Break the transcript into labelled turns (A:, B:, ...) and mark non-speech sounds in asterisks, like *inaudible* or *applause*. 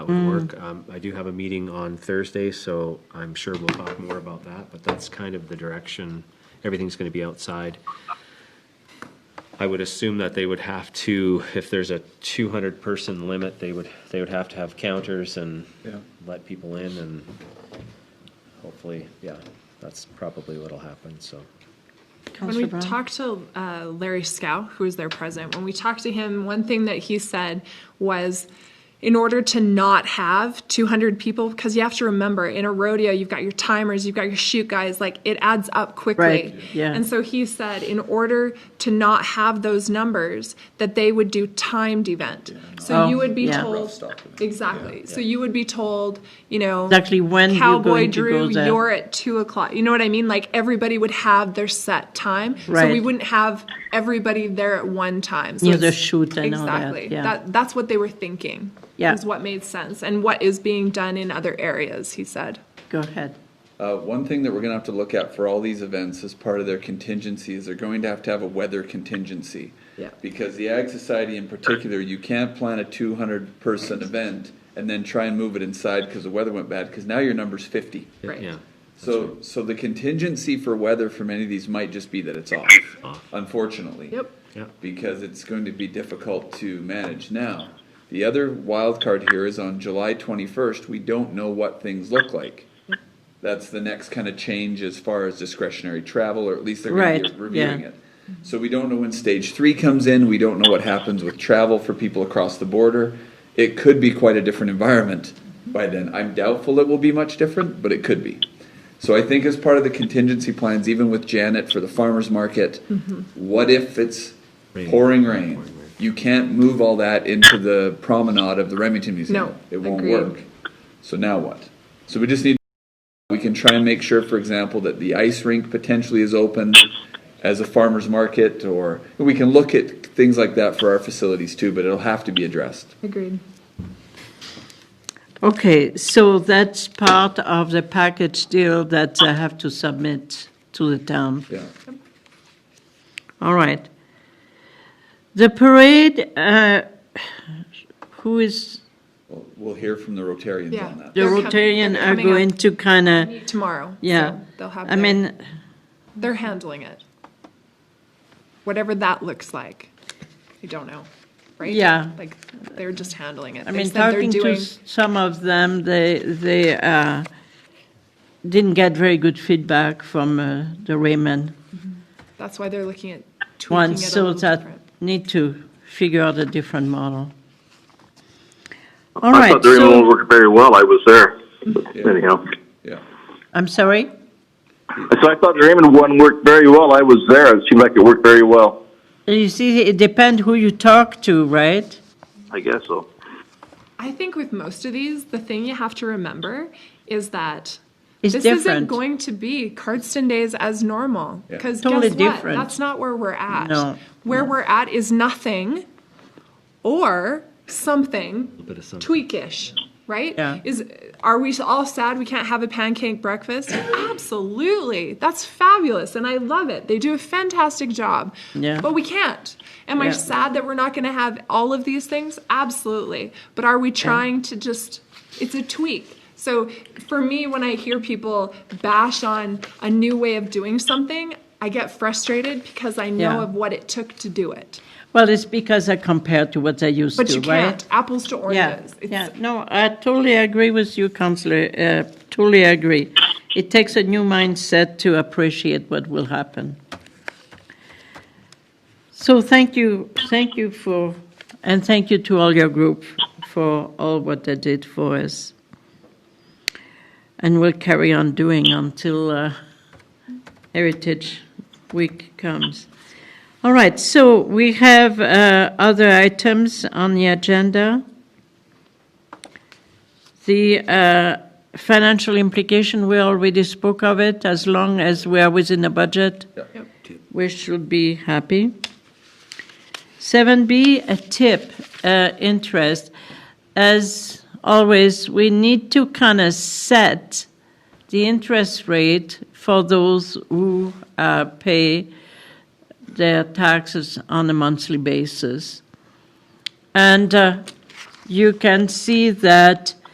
A: that would work. Um, I do have a meeting on Thursday, so I'm sure we'll talk more about that, but that's kind of the direction. Everything's going to be outside. I would assume that they would have to, if there's a 200-person limit, they would, they would have to have counters and
B: Yeah.
A: let people in and hopefully, yeah, that's probably what'll happen, so.
C: When we talked to uh, Larry Scow, who was there present, when we talked to him, one thing that he said was, in order to not have 200 people, because you have to remember, in a rodeo, you've got your timers, you've got your shoot guys, like it adds up quickly.
D: Right, yeah.
C: And so he said, in order to not have those numbers, that they would do timed event. So
D: Oh,
C: you would be
D: yeah.
C: told
B: Rough stuff, I mean,
C: exactly. So you would be told, you know,
D: Exactly when you're
C: Cowboy
D: going to
C: Drew,
D: go there.
C: you're at two o'clock. You know what I mean? Like everybody would have their set time, so we
D: Right.
C: wouldn't have everybody there at one time. So
D: Near the
C: it's-
D: shoot and all that,
C: exactly.
D: yeah.
C: that's what they were thinking.
D: Yeah.
C: is what made sense and what is being done in other areas. He said.
D: Go ahead.
B: Uh, one thing that we're gonna have to look at for all these events as part of their contingency is they're going to have to have a weather contingency.
C: Yeah.
B: Because the Ag Society in particular, you can't plan a two hundred person event and then try and move it inside because the weather went bad, because now your number's fifty.
C: Right.
A: Yeah,
B: So, so the contingency for weather for many of these might just be that it's off, unfortunately.
C: Yep.
A: yeah.
B: because it's going to be difficult to manage now. The other wild card here is on July 21st, we don't know what things look like. That's the next kind of change as far as discretionary travel, or at least they're going to
D: Right,
B: be reviewing
D: yeah.
B: it. So we don't know when stage three comes in, we don't know what happens with travel for people across the border. It could be quite a different environment by then. I'm doubtful it will be much different, but it could be. So I think as part of the contingency plans, even with Janet for the farmer's market,
D: Mm-hmm.
B: what if it's
A: Rain.
B: pouring rain? You can't move all that into the promenade of the Remington Museum.
C: No,
B: It won't
C: agreed.
B: work. So now what? So we just need, we can try and make sure, for example, that the ice rink potentially is open as a farmer's market, or, we can look at things like that for our facilities too, but it'll have to be addressed.
C: Agreed.
D: Okay, so that's part of the package deal that I have to submit to the town.
B: Yeah.
D: All right. The parade, uh, who is,
B: We'll- We'll hear from the Rotarians
C: Yeah.
B: on that.
D: the
C: They're com-
D: Rotarian
C: they're
D: are
C: coming up.
D: going to kind of,
C: Tomorrow.
D: yeah.
C: so they'll have.
D: I
C: their-
D: mean,
C: they're handling it. Whatever that looks like, you don't know, right?
D: Yeah.
C: Like they're just handling it.
D: I
C: They
D: mean,
C: said they're
D: talking to
C: doing-
D: s- some of them, they, they uh, didn't get very good feedback from uh, the Raymond
C: That's why they're looking at tweaking
D: one,
C: it a
D: so
C: little
D: that
C: different.
D: need to figure out a different model. All
E: I
D: right,
E: thought the removal
D: so,
E: worked very well. I was there.
B: Yeah.
E: Anyhow,
B: Yeah.
D: I'm sorry?
E: so I thought the Raymond one worked very well. I was there. It seemed like it worked very well.
D: You see, it depends who you talk to, right?
E: I guess so.
C: I think with most of these, the thing you have to remember is that
D: It's
C: this isn't
D: different.
C: going to be Cardston days as normal
B: Yeah.
C: because
D: Totally
C: guess
D: different.
C: what? That's not where we're at.
D: No,
C: where we're at is nothing or something,
A: bit of something.
C: tweakish, right?
D: Yeah.
C: Is are we all sad we can't have a pancake
D: *clears throat*
C: breakfast? Absolutely, that's fabulous, and I love it. They do a fantastic job.
D: Yeah.
C: but we can't. Am I
D: Yeah.
C: sad that we're not going to have all of these things? Absolutely. But are we trying to just, it's a tweak. So for me, when I hear people bash on a new way of doing something, I get frustrated because I know
D: Yeah.
C: of what it took to do it.
D: Well, it's because I compared to what I used
C: But
D: to,
C: you
D: right?
C: can't. Apples to
D: Yeah,
C: oranges. It's-
D: yeah, no, I totally agree with you, Counselor, uh, totally agree. It takes a new mindset to appreciate what will happen. So thank you, thank you for, and thank you to all your group for all what they did for us. And we'll carry on doing until uh, Heritage Week comes. All right, so we have uh, other items on the agenda. The uh, financial implication, we already spoke of it. As long as we are within the budget, we should be happy. 7B, a tip, uh, interest. As always, we need to kind of set the interest rate for those who uh, pay their taxes on a monthly basis. And uh, you can see that